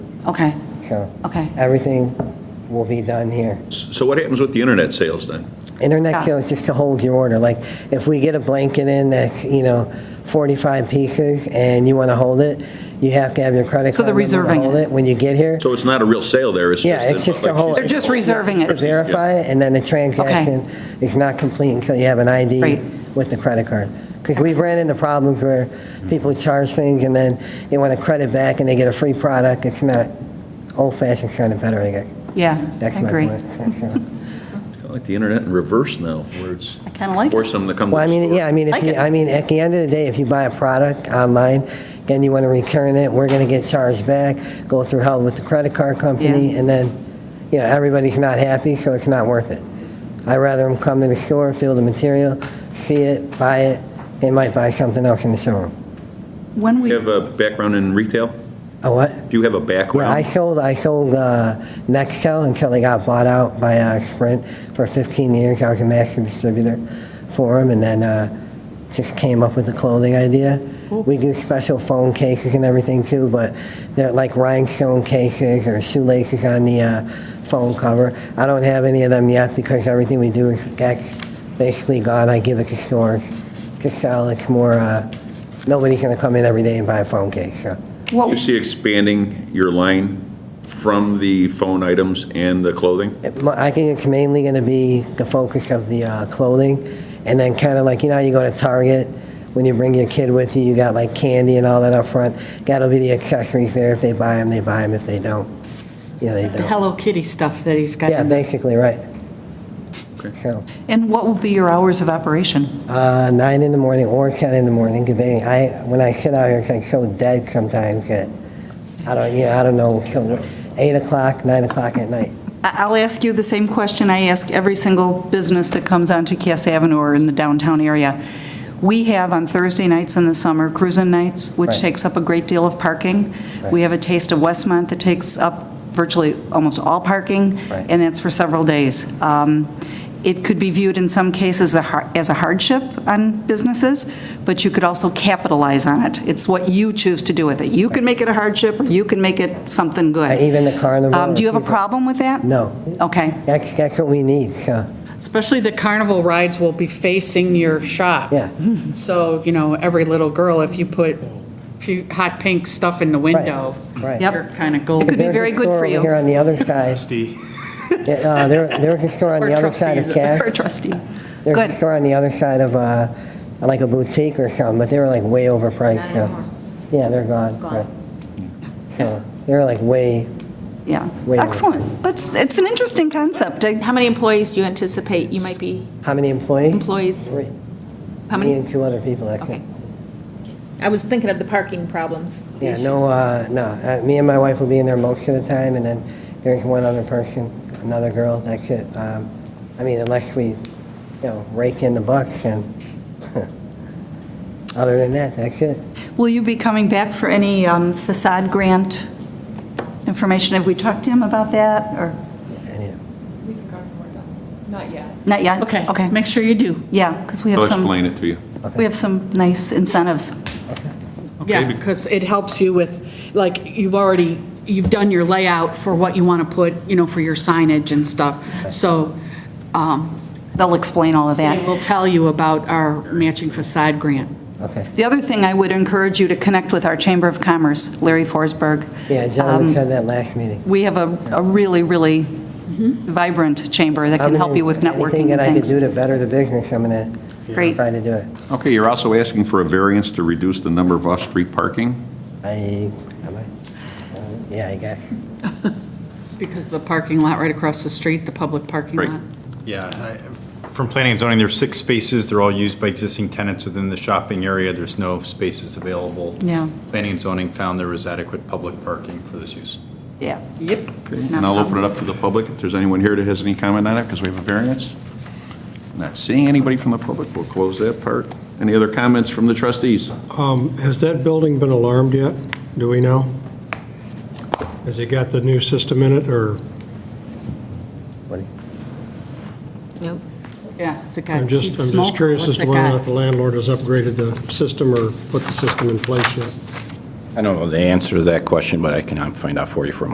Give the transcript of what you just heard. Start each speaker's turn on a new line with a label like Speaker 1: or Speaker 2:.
Speaker 1: Okay,
Speaker 2: So
Speaker 1: okay.
Speaker 2: everything will be done here.
Speaker 3: So what happens with the internet sales then?
Speaker 2: Internet
Speaker 1: Yeah.
Speaker 2: sales just to hold your order. Like if we get a blanket in that's, you know, 45 pieces and you want to hold it, you have to have your credit card.
Speaker 1: So they're
Speaker 2: number to
Speaker 1: reserving
Speaker 2: hold
Speaker 1: it.
Speaker 2: When you get here,
Speaker 3: So it's not a real sale there, it's
Speaker 2: Yeah,
Speaker 3: just.
Speaker 2: it's just a
Speaker 3: like
Speaker 2: whole-
Speaker 3: she's-
Speaker 1: They're just reserving
Speaker 2: to
Speaker 1: it.
Speaker 2: verify it, and then the transaction is not complete until you have an ID
Speaker 1: Right.
Speaker 2: with the credit card. Because we've ran into problems where people charge things and then they want to credit back and they get a free product. It's not old-fashioned credit better, I guess.
Speaker 1: Yeah, I
Speaker 2: That's my
Speaker 1: agree.
Speaker 2: point. So- so-
Speaker 3: Kinda Like the internet in reverse now, where it's
Speaker 1: I kind of like it.
Speaker 3: forcing them to come to
Speaker 2: Well, I
Speaker 3: the
Speaker 2: mean,
Speaker 3: store.
Speaker 2: yeah, I mean, if
Speaker 1: Like
Speaker 2: you,
Speaker 1: it.
Speaker 2: I mean, at the end of the day, if you buy a product online, and you want to return it, we're going to get charged back, go through hell with the credit card company,
Speaker 1: Yeah.
Speaker 2: and then, you know, everybody's not happy, so it's not worth it. I'd rather them come to the store, feel the material, see it, buy it, they might buy something else in the showroom.
Speaker 1: When
Speaker 3: Do you
Speaker 1: we,
Speaker 3: have a background in retail?
Speaker 2: A what?
Speaker 3: Do you have a
Speaker 2: Yeah, I
Speaker 3: background?
Speaker 2: sold, I sold uh, Nextel until they got bought out by uh, Sprint for 15 years. I was a master distributor for them, and then uh, just came up with the clothing idea. We do special phone cases and everything too, but they're like rhinestone cases or shoelaces on the uh, phone cover. I don't have any of them yet because everything we do is that's basically gone. I give it to stores to sell. It's more. Uh, Nobody's going to come in every day and buy a phone case. So.
Speaker 3: Do you
Speaker 1: what,
Speaker 3: see expanding your line from the phone items and the clothing?
Speaker 2: Well, I think it's mainly going to be the focus of the uh, clothing, and then kind of like, you know, how you go to Target, when you bring your kid with you, you got like candy and all that up front. That'll be the accessories there. If they buy them, they buy them. If they don't, yeah, they
Speaker 4: The
Speaker 2: don't.
Speaker 4: Hello Kitty stuff that he's got.
Speaker 2: Yeah,
Speaker 4: in there.
Speaker 2: basically, right.
Speaker 3: Okay.
Speaker 2: So,
Speaker 1: and what will be your hours of operation?
Speaker 2: uh, nine in the morning or 10 in the morning, debating. I, when I sit out here, it's like so dead sometimes that I don't, yeah, I don't know. So, eight o'clock, nine o'clock at night.
Speaker 1: I- I'll ask you the same question I ask every single business that comes onto Cass Avenue or in the downtown area. We have on Thursday nights in the summer, cruising nights, which
Speaker 2: Right.
Speaker 1: takes up a great deal of parking. We have a Taste of Westmont that takes up virtually almost all parking,
Speaker 2: Right.
Speaker 1: and that's for several days. Um, It could be viewed in some cases a har- as a hardship on businesses, but you could also capitalize on it. It's what you choose to do with it. You can make it a hardship, or you can make it something good.
Speaker 2: Even the carnival,
Speaker 1: Um, Do you have a
Speaker 2: people-
Speaker 1: problem with that?
Speaker 2: No,
Speaker 1: Okay.
Speaker 2: that's, that's what we need. So,
Speaker 4: Especially the carnival rides will be facing your shop.
Speaker 2: yeah.
Speaker 4: So, you know, every little girl, if you put a few hot pink stuff in the window,
Speaker 2: Right.
Speaker 1: Yep.
Speaker 4: you're kind of golden.
Speaker 1: Could be
Speaker 2: There's a
Speaker 1: very good
Speaker 2: store
Speaker 1: for
Speaker 2: over
Speaker 1: you.
Speaker 2: Here on the other side. Yeah, uh, There there was a store on
Speaker 4: Or
Speaker 2: the other side of
Speaker 4: trustees.
Speaker 2: Cass.
Speaker 1: Or a trustee.
Speaker 2: There was
Speaker 1: Good.
Speaker 2: a store on the other side of, uh, like a boutique or something, but they were like way overpriced, so. Yeah, they're gone. right. So, they were like way,
Speaker 1: Yeah.
Speaker 2: Way more.
Speaker 1: Excellent. It's, it's an interesting concept. I-
Speaker 5: How many employees do you anticipate you might be,
Speaker 2: how many employees?
Speaker 5: employees?
Speaker 2: Three.
Speaker 5: How
Speaker 2: Me
Speaker 5: many?
Speaker 2: and two other people, I
Speaker 5: Okay.
Speaker 2: think.
Speaker 5: I was thinking of the parking problems. the
Speaker 2: Yeah,
Speaker 5: issues.
Speaker 2: no, uh, no, uh, me and my wife will be in there most of the time, and then there's one other person, another girl, that's it. Um, I mean, unless we, you know, rake in the bucks, and other than that, that's it.
Speaker 1: Will you be coming back for any um, facade grant information? Have we talked to him about that, or?
Speaker 2: And, yeah.
Speaker 1: Not yet?
Speaker 4: Okay.
Speaker 1: Okay.
Speaker 4: Make sure you do.
Speaker 1: Yeah, because we have
Speaker 3: I'll
Speaker 1: some,
Speaker 3: explain it to you.
Speaker 1: we have some nice incentives.
Speaker 4: Yeah, because it helps you with, like, you've already, you've done your layout for what you want to put, you know, for your signage and stuff. So um,
Speaker 1: They'll explain all of that.
Speaker 4: it will tell you about our matching facade grant.
Speaker 2: Okay.
Speaker 1: The other thing, I would encourage you to connect with our Chamber of Commerce, Larry Forsberg.
Speaker 2: Yeah,
Speaker 1: Um,
Speaker 2: John said that last meeting.
Speaker 1: We have a a really, really
Speaker 4: Mm-hmm.
Speaker 1: vibrant chamber that can help you with
Speaker 2: Um, Anything
Speaker 1: networking
Speaker 2: that
Speaker 1: and
Speaker 2: I can
Speaker 1: things.
Speaker 2: do to better the business, I'm gonna
Speaker 1: Great.
Speaker 2: try to do it.
Speaker 3: Okay, you're also asking for a variance to reduce the number of off-street parking?
Speaker 2: I, am I? Um, Yeah, I guess.
Speaker 4: Because the parking lot right across the street, the public parking
Speaker 3: Right.
Speaker 4: lot.
Speaker 6: Yeah, I- from planning and zoning, there's six spaces, they're all used by existing tenants within the shopping area, there's no spaces available.
Speaker 1: Yeah.
Speaker 6: Planning and zoning found there was adequate public parking for this use.
Speaker 1: Yeah.
Speaker 4: Yep.
Speaker 3: And I'll open it up to the public, if there's anyone here that has any comment on it, because we have a variance. Not seeing anybody from the public, we'll close that part. Any other comments from the trustees?
Speaker 7: Um, Has that building been alarmed yet? Do we know? Has it got the new system in it,
Speaker 4: Uh,
Speaker 7: or,
Speaker 2: What do you-
Speaker 5: Nope.
Speaker 4: Yeah, it's a guy.
Speaker 7: I'm just,
Speaker 4: He'd
Speaker 7: I'm
Speaker 4: smoke
Speaker 7: just
Speaker 4: it.
Speaker 7: curious
Speaker 4: What's
Speaker 7: as to
Speaker 4: it
Speaker 7: whether or
Speaker 4: got?
Speaker 7: not the landlord has upgraded the system or put the system in place yet.
Speaker 8: I don't know the answer to that question, but I can um, find out for you for a